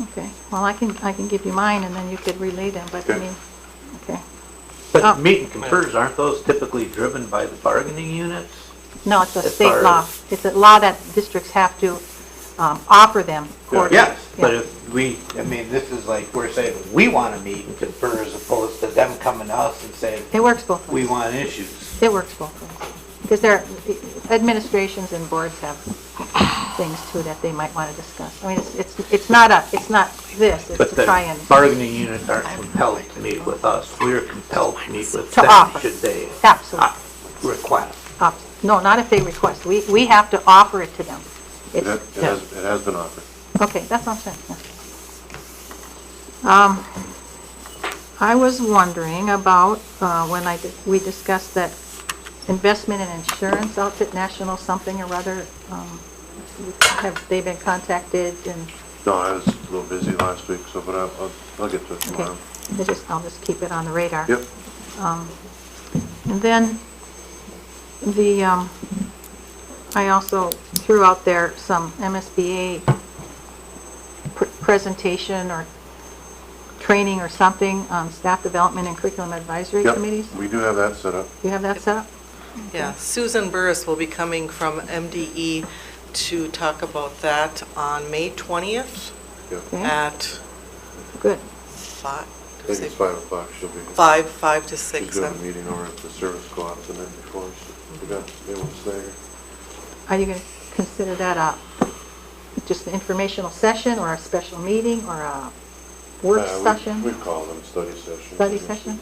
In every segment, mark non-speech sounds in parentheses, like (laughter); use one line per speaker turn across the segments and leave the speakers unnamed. Okay, well, I can, I can give you mine, and then you could relay them, but I
Okay.
mean, okay. Oh.
But meet and confers, aren't those typically driven by the bargaining units?
No, it's a
As
state
far
law.
as-
It's a law that districts have to um, offer them quarterly.
Yes, but
Yeah.
if we, I mean, this is like, we're saying, we want to meet and confer as opposed to them coming to us and saying,
It works both
we
ways.
want issues.
It works both ways. Because there, administrations and boards have things too that they might want to discuss. I mean, it's, it's it's not a, it's not this,
But
it's to try
the
and,
bargaining units aren't compelled to meet with us. We're compelled to meet with
To
them
offer.
should they Ah.
absolutely.
uh, request.
Ops- No, not if they request. We, we have to offer it to them.
It
It's,
ha- it has, it has been offered.
Okay, that's what I'm saying, yeah. Um, I was wondering about, uh, when I, di- we discussed that investment and insurance outfit, National something or other, um, have they been contacted and,
No, I was a little busy last week, so, but I'll, I'll- I'll get to it
okay, Uh,
tomorrow.
I just, I'll just keep it on the radar.
Yep,
And then the, um, I also threw out there some MSBA pr- presentation or training or something on staff development and curriculum advisory
yep.
committees.
We do have that set up.
You have that set up?
Yeah, Susan Burris will be coming from MDE to talk about that on May 20th
Okay,
at
good.
fi-
I think it's five o'clock, she'll be.
five, five to
She's
six.
doing a
I'm-
meeting over at the service co-op the night before, so
Mm-hmm.
we got, they won't stay here.
Are you going to consider that a, just an informational session or a special meeting or a work
Uh, we-
session?
We call them study sessions.
Study session?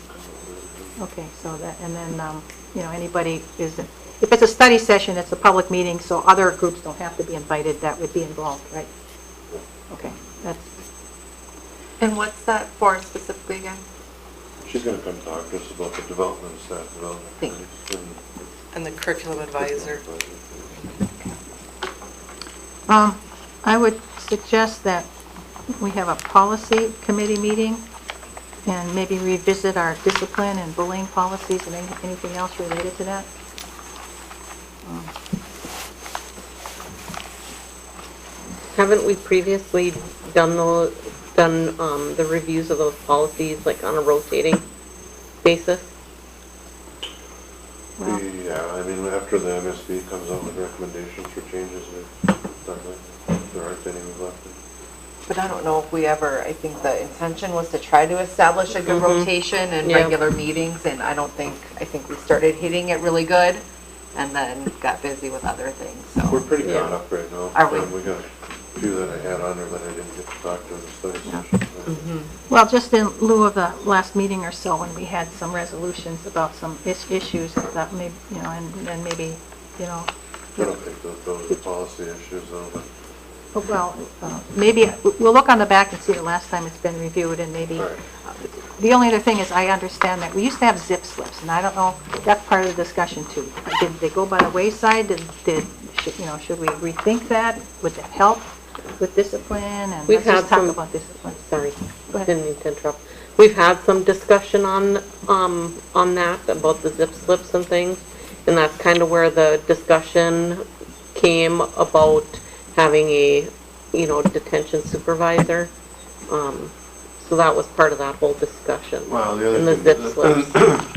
Okay, so that, and then, um, you know, anybody is, if it's a study session, it's a public meeting, so other groups don't have to be invited that would be involved, right? Okay, that's,
And what's that for specifically again?
She's gonna come talk to us about the development, of staff development.
Thank
committees and-
And the curriculum advisor.
um, I would suggest that we have a policy committee meeting and maybe revisit our discipline and bullying policies and any- anything else related to that.
Haven't we previously done the, done um, the reviews of those policies, like on a rotating basis?
Well-
We- Yeah, uh, I mean, after the MSB comes out with recommendations for changes, we've done that. There aren't any we've left.
But I don't know if we ever, I think the intention was to try to establish a good rotation and
Yeah.
regular meetings, and I don't think, I think we started hitting it really good and then got busy with other things,
We're
so.
pretty
Yeah.
caught up right now.
Are we?
Um, We got a few that I had on there that I didn't get to talk to in the study session.
Well, just in lieu of the last meeting or so, when we had some resolutions about some is- issues that may, you know, and and maybe, you know,
I don't think that those are policy issues though, but
Oh, Well, uh, maybe, we'll look on the back and see the last time it's been reviewed, and maybe, uh,
Right.
the only other thing is, I understand that, we used to have zip slips, and I don't know, that's part of the discussion too. Did they go by the wayside, did, did, should- you know, should we rethink that? Would that help with discipline, and
We've
let's just
had
talk
some-
about discipline.
Sorry,
Go ahead.
didn't mean to interrupt. We've had some discussion on, um, on that, about the zip slips and things, and that's kind of where the discussion came about having a, you know, detention supervisor. Um, So that was part of that whole discussion.
Well, the
And
other
the
thing.
zip slips.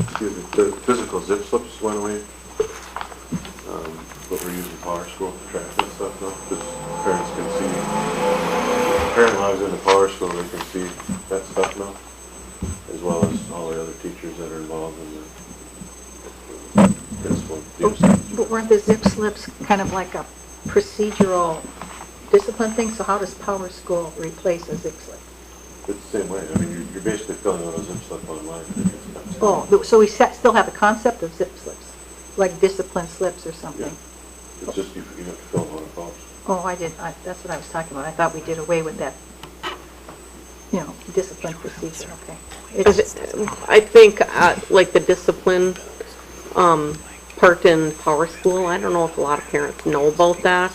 (coughs) Excuse me, the physical zip slips went away. Um, But we're using power school to track this stuff now, because parents can see, if a parent logs into power school, they can see that stuff now, as well as all the other teachers that are involved in the principal. use.
But weren't the zip slips kind of like a procedural discipline thing, so how does Power School replace a zip slip?
It's the same way, I mean, you're- you're basically filling out a zip slip online. and it's not-
Oh, th- so we sa- still have the concept of zip slips, like discipline slips or
Yeah,
something?
it's just you you have to fill out a box.
Oh, I did, I- that's what I was talking about, I thought we did away with that, you know, discipline procedure, okay. It's-
I think, uh, like the discipline, um, part in Power School, I don't know if a lot of parents know about that.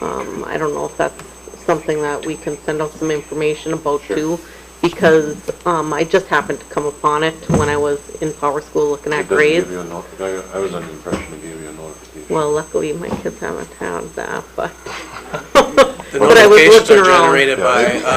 Um, I don't know if that's something that we can send out some information about too, because, um, I just happened to come upon it when I was in Power School looking
It
at
doesn't give
grades.
you a no- I I was under the impression it gave you a notification.
Well, luckily, my kids haven't had that, but.
The
(laughs) But I was
notifications
looking
are
around.
generated by uh,